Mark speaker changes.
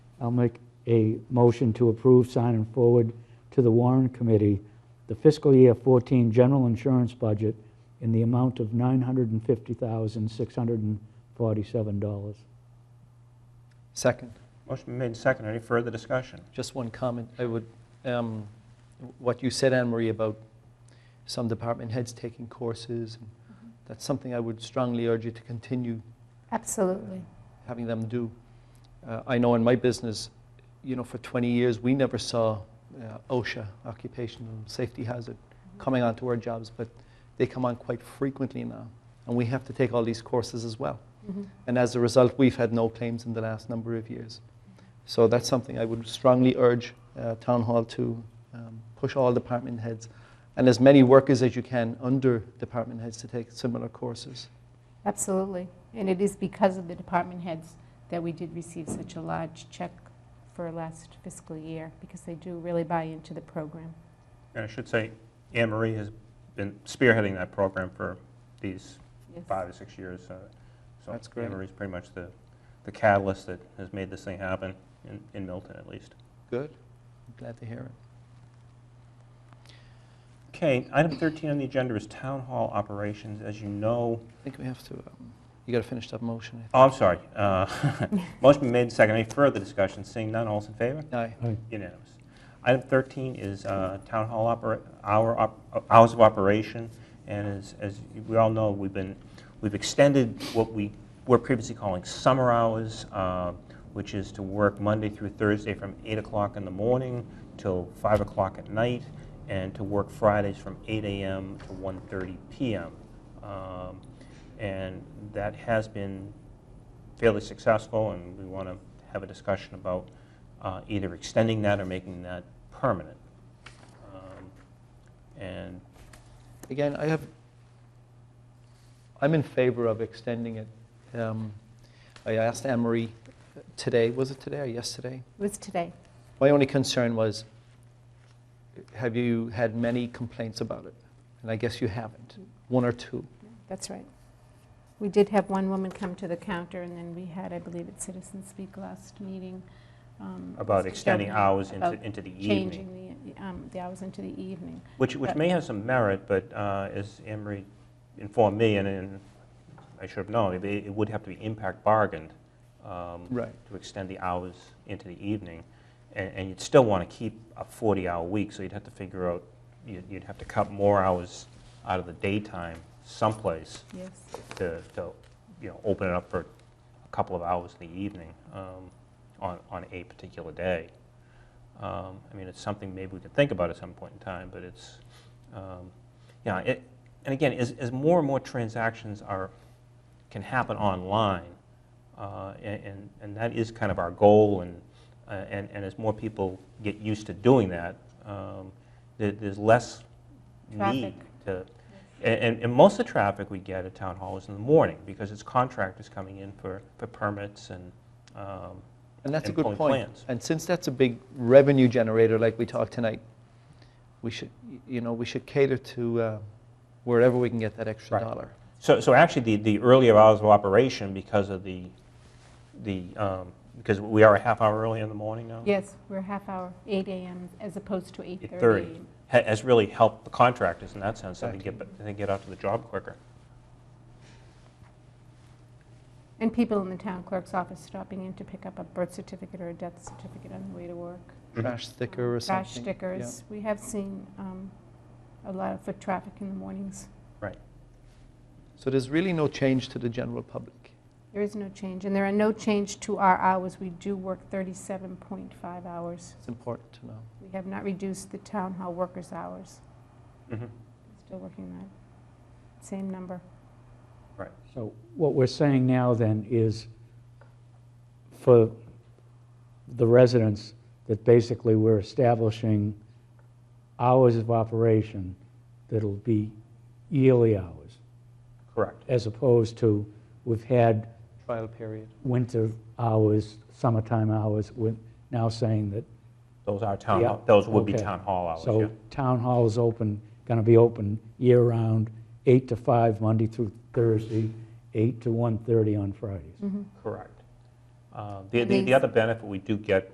Speaker 1: I'll make a motion to approve, sign, and forward to the Warren Committee the fiscal year 14 general insurance budget in the amount of $950,647.
Speaker 2: Second,
Speaker 3: Motion been made and seconded. Any further discussion?
Speaker 2: just one comment. I would, um, what you said, Anne Marie, about some department heads taking courses, that's something I would strongly urge you to continue
Speaker 4: Absolutely.
Speaker 2: having them do. Uh, I know in my business, you know, for 20 years, we never saw uh, OSHA, occupational safety hazard, coming onto our jobs, but they come on quite frequently now. And we have to take all these courses as well.
Speaker 4: Mm-hmm.
Speaker 2: And as a result, we've had no claims in the last number of years. So that's something I would strongly urge uh, Town Hall to um, push all department heads and as many workers as you can under department heads to take similar courses.
Speaker 4: Absolutely. And it is because of the department heads that we did receive such a large check for last fiscal year, because they do really buy into the program.
Speaker 3: And I should say, Anne Marie has been spearheading that program for these
Speaker 4: Yes.
Speaker 3: five or six years. uh, So
Speaker 2: That's great.
Speaker 3: Anne Marie's pretty much the the catalyst that has made this thing happen, in- in Milton at least.
Speaker 2: Good. Glad to hear it.
Speaker 3: Okay, item 13 on the agenda is Town Hall Operations. As you know,
Speaker 2: I think we have to, um, you got to finish that motion.
Speaker 3: oh, I'm sorry. uh, Motion been made and seconded. Any further discussion? Seeing none, all's in favor?
Speaker 2: Aye.
Speaker 3: Unanimous. Item 13 is uh, Town Hall opera- hour op- hours of operation, and as- as we all know, we've been, we've extended what we were previously calling summer hours, uh, which is to work Monday through Thursday from 8 o'clock in the morning till 5 o'clock at night, and to work Fridays from 8 a.m. to 1:30 p.m. Um, And that has been fairly successful, and we want to have a discussion about uh, either extending that or making that permanent. Um, And,
Speaker 2: Again, I have, I'm in favor of extending it. Um, I asked Anne Marie today, was it today or yesterday?
Speaker 4: It was today.
Speaker 2: My only concern was, have you had many complaints about it? And I guess you haven't, one or two.
Speaker 4: That's right. We did have one woman come to the counter, and then we had, I believe, at Citizen Speak last meeting. um,
Speaker 3: about extending
Speaker 4: Sheldon,
Speaker 3: hours into
Speaker 4: about
Speaker 3: into the evening,
Speaker 4: Changing the, um, the hours into the evening.
Speaker 3: which, which may have some merit, but uh, as Emery informed me, and- and I should have known, it- it would have to be impact bargained um,
Speaker 2: Right.
Speaker 3: to extend the hours into the evening. And and you'd still want to keep a 40-hour week, so you'd have to figure out, you'd you'd have to cut more hours out of the daytime someplace
Speaker 4: Yes,
Speaker 3: to, to, you know, open it up for a couple of hours in the evening um, on, on a particular day. Um, I mean, it's something maybe we could think about at some point in time, but it's, um, yeah, it, and again, as, as more and more transactions are, can happen online, uh, a- and, and that is kind of our goal, and, uh, and, and as more people get used to doing that, um, there, there's less need
Speaker 4: Traffic.
Speaker 3: to, and- and, and most of the traffic we get at town hall is in the morning, because it's contractors coming in for, for permits and, um,
Speaker 2: And that's a
Speaker 3: And
Speaker 2: good
Speaker 3: pulling
Speaker 2: point.
Speaker 3: plans.
Speaker 2: And since that's a big revenue generator like we talked tonight, we should, you know, we should cater to uh, wherever we can get that extra
Speaker 3: Right. Mm-hmm.
Speaker 2: dollar.
Speaker 3: So, so actually, the, the earlier hours of operation, because of the, the, um, because we are a half hour early in the morning now?
Speaker 4: yes, we're a half hour, 8 AM as opposed to 8:30.
Speaker 3: At 30, ha- has really helped the contractors in that sense, so they
Speaker 2: Exactly.
Speaker 3: get, ba- they get out to the job quicker.
Speaker 4: And people in the town clerk's office stopping in to pick up a birth certificate or a death certificate on the way to work.
Speaker 1: Mm-hmm.
Speaker 4: Um,
Speaker 3: Mhm.
Speaker 2: Trash sticker or something.
Speaker 4: Trash
Speaker 2: Yeah.
Speaker 4: stickers. We have seen um, a lot of foot traffic in the mornings.
Speaker 2: So there's really no change to the general public.
Speaker 4: There is no change, and there are no change to our hours. We do work 37.5 hours.
Speaker 2: It's important to know.
Speaker 4: We have not reduced the town hall workers' hours.
Speaker 3: Mhm.
Speaker 4: Still working that same number.
Speaker 1: So what we're saying now then is for the residents, that basically we're establishing hours of operation that'll be yearly hours,
Speaker 3: Correct.
Speaker 1: as opposed to we've had
Speaker 2: Trial period.
Speaker 1: winter hours, summertime hours, we're now saying that
Speaker 3: Those are town,
Speaker 1: Yeah,
Speaker 3: hall- those would be
Speaker 1: okay.
Speaker 3: town hall hours, yeah.
Speaker 1: So town hall is open, going to be open year-round, 8 to 5, Monday through Thursday, 8 to 1:30 on Fridays.
Speaker 3: Correct. Uh, The, the
Speaker 4: These-
Speaker 3: the other benefit we do get